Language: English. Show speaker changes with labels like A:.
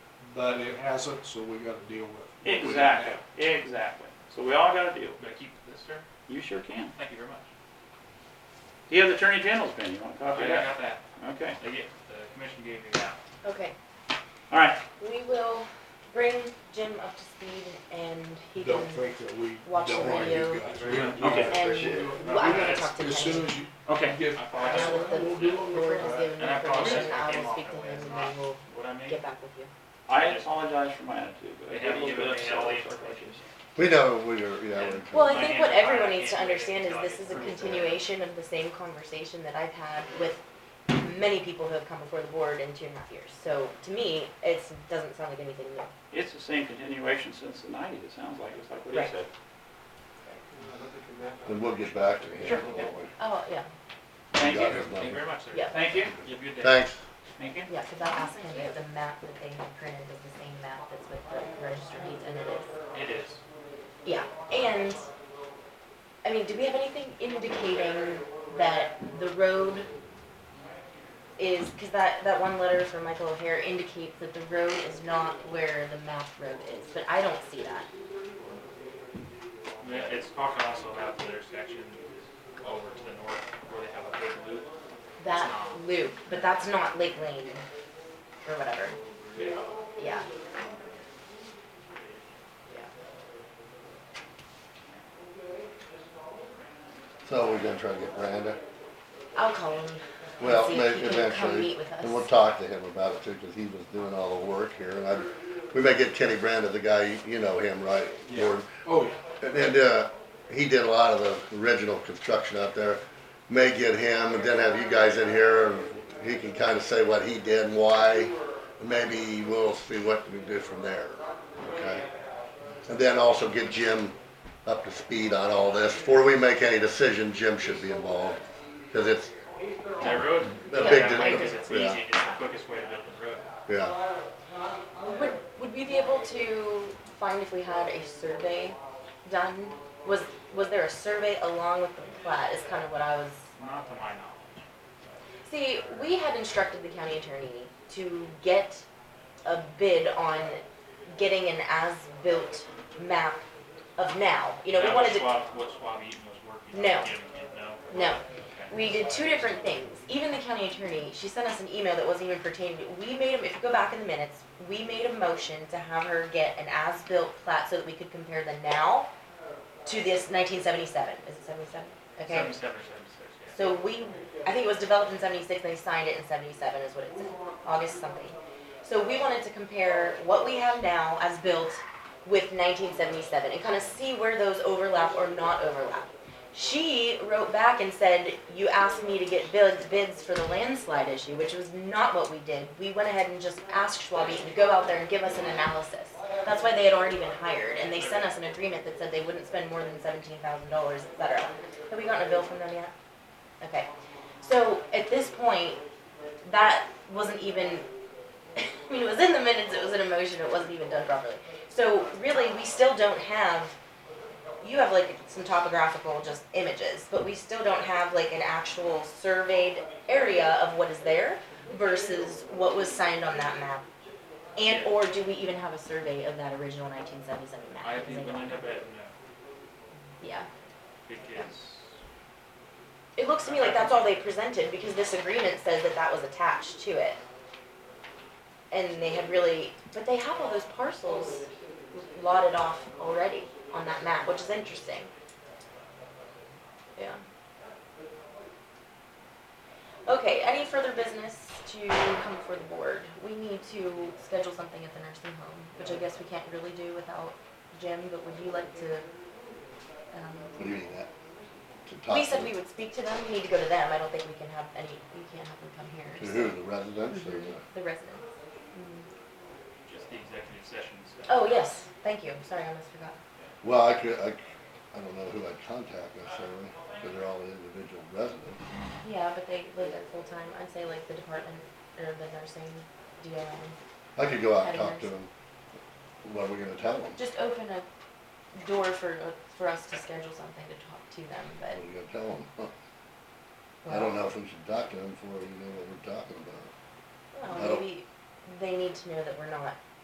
A: but it hasn't, so we gotta deal with. what we have
B: Exactly,
A: now.
B: exactly. So we all gotta deal.
C: Do I keep this, sir?
B: You sure can.
C: Thank you very much.
B: Do you have the Attorney General's pen? You want a copy
C: I
B: of that?
C: got that.
B: Okay.
C: They get, the commission gave me that.
D: Okay,
B: All right.
D: we will bring Jim up to speed and he can,
A: Don't think that we
D: Watch
A: don't
D: the
A: want you
D: video.
A: guys.
B: Okay.
D: and, well, I'm gonna talk to
A: As
D: Kenny.
A: soon as you
B: Okay.
A: get.
C: I
D: Now
C: apologize.
D: that the,
A: We'll do it.
D: the has given me
C: And I apologize
D: information,
C: if I
D: I
C: came
D: will
C: off
D: speak to
C: that way.
D: him
C: It's
D: and
C: not
D: we will
C: what I mean.
D: get back with you.
B: I apologize for my attitude, but I
C: They
B: get a
C: haven't
B: little
C: given
B: bit
C: me
B: upset.
C: all the
B: with our
C: information.
B: coaches.
E: We know we were, yeah. we're-
D: Well, I
C: My
D: think
C: hands
D: what
C: are tied.
D: everyone
C: I
D: needs to
C: can't do
D: understand is
C: anything
D: this
C: about
D: is a
C: it.
D: continuation of the same conversation that I've had with many people who have come before the board in two and a half years. So to me, it doesn't sound like anything new.
B: It's the same continuation since the nineties, it sounds like, it's like what
D: Right.
B: he said.
E: Then we'll get back to him.
B: Sure.
E: won't we?
D: Oh, yeah,
B: Thank
E: Got
B: you.
E: his
C: Thank you
E: number.
C: very much, sir.
D: Yeah.
B: Thank you.
C: You have a good day.
E: Thanks.
B: Thank you.
D: yeah, because I asked him if the map that they had printed is the same map that's with the register deeds, and it
C: It
D: is.
C: is.
D: Yeah, and, I mean, do we have anything indicating that the road is, because that, that one letter from Michael O'Hare indicates that the road is not where the map road is, but I don't see that.
C: Yeah, It's talking also about the intersection over to the north where they have a big loop.
D: That loop, but that's not Lake Lane or whatever. Yeah. Yeah.
E: So we're gonna try to get Branda.
D: I'll call him. and
E: Well,
D: see if
E: maybe
D: he can Come meet
E: eventually,
D: with us.
E: and we'll talk to him about it too, because he was doing all the work here, and I, we may get Kenny Branda, the guy, you- you know him, right?
A: Yeah.
E: Gordon?
A: Oh, yeah.
E: And, and, uh, he did a lot of the original construction out there. May get him and then have you guys in here and he can kind of say what he did and why. And Maybe we'll see what we do from there, okay? And then also get Jim up to speed on all this. Before we make any decision, Jim should be involved, cause it's,
C: That road.
E: The
C: yeah,
E: big
C: that way,
E: difference,
C: 'cause it's
E: yeah.
C: easy, it's the quickest way to build the road.
E: yeah,
D: Would, would we be able to find if we had a survey done? Was, was there a survey along with the plat is kind of what I was,
C: Not to my knowledge.
D: see, we had instructed the county attorney to get a bid on getting an as-built map of now. You know, we
C: That
D: wanted
C: was
D: to
C: Schwab- What Schwab Eaton was working on.
D: No.
C: Jim didn't know.
D: No.
C: Okay.
D: We did two different things. Even the county attorney, she sent us an email that wasn't even pertaining to, we made, a- if you go back in the minutes, we made a motion to have her get an as-built plat so that we could compare the now to this nineteen seventy-seven. Is it seventy-seven? Okay.
C: Seventy-seven or seventy-six, yeah.
D: So we, I think it was developed in seventy-six, they signed it in seventy-seven is what it said, August something. So we wanted to compare what we have now as built with nineteen seventy-seven and kind of see where those overlap or not overlap. She wrote back and said, you asked me to get bids, bids for the landslide issue, which was not what we did. We went ahead and just asked Schwab Eaton to go out there and give us an analysis. That's why they had already been hired, and they sent us an agreement that said they wouldn't spend more than seventeen thousand dollars, et cetera. Have we gotten a bill from them yet? Okay, so at this point, that wasn't even, I mean, it was in the minutes, it was an emotion, it wasn't even done properly. So really, we still don't have, you have like some topographical just images, but we still don't have like an actual surveyed area of what is there versus what was signed on that map. And, or do we even have a survey of that original nineteen seventy-seven map?
C: I think we'll end up at no,
D: Yeah.
C: because
D: It looks to me like that's all they presented, because this agreement says that that was attached to it. And they had really, but they have all those parcels lotted off already on that map, which is interesting. Yeah. Okay, any further business to come before the board? We need to schedule something at the nursing home, which I guess we can't really do without Jim, but would you like to, um,
E: what do you mean that? To talk
D: we said
E: to-
D: we would speak to them, we need to go to them, I don't think we can have any, we can't have them come
E: To
D: here.
E: who, the residents or what?
D: The residents.
C: just the executive session stuff.
D: Oh, yes, thank you, I'm sorry, I almost forgot.
E: Well, I could, I, I don't know who I'd contact necessarily, because they're all individual residents.
D: Yeah, but they live there full-time, I'd say like the department, or the nursing, DOM,
E: I could go out and talk to him. What are we gonna tell him?
D: just open a door for, uh, for us to schedule something to talk to them,
E: What
D: but.
E: are we gonna tell him? I don't know if we should talk to him before we know what we're talking about.
D: Well,
E: I don't-
D: maybe they need to know that we're not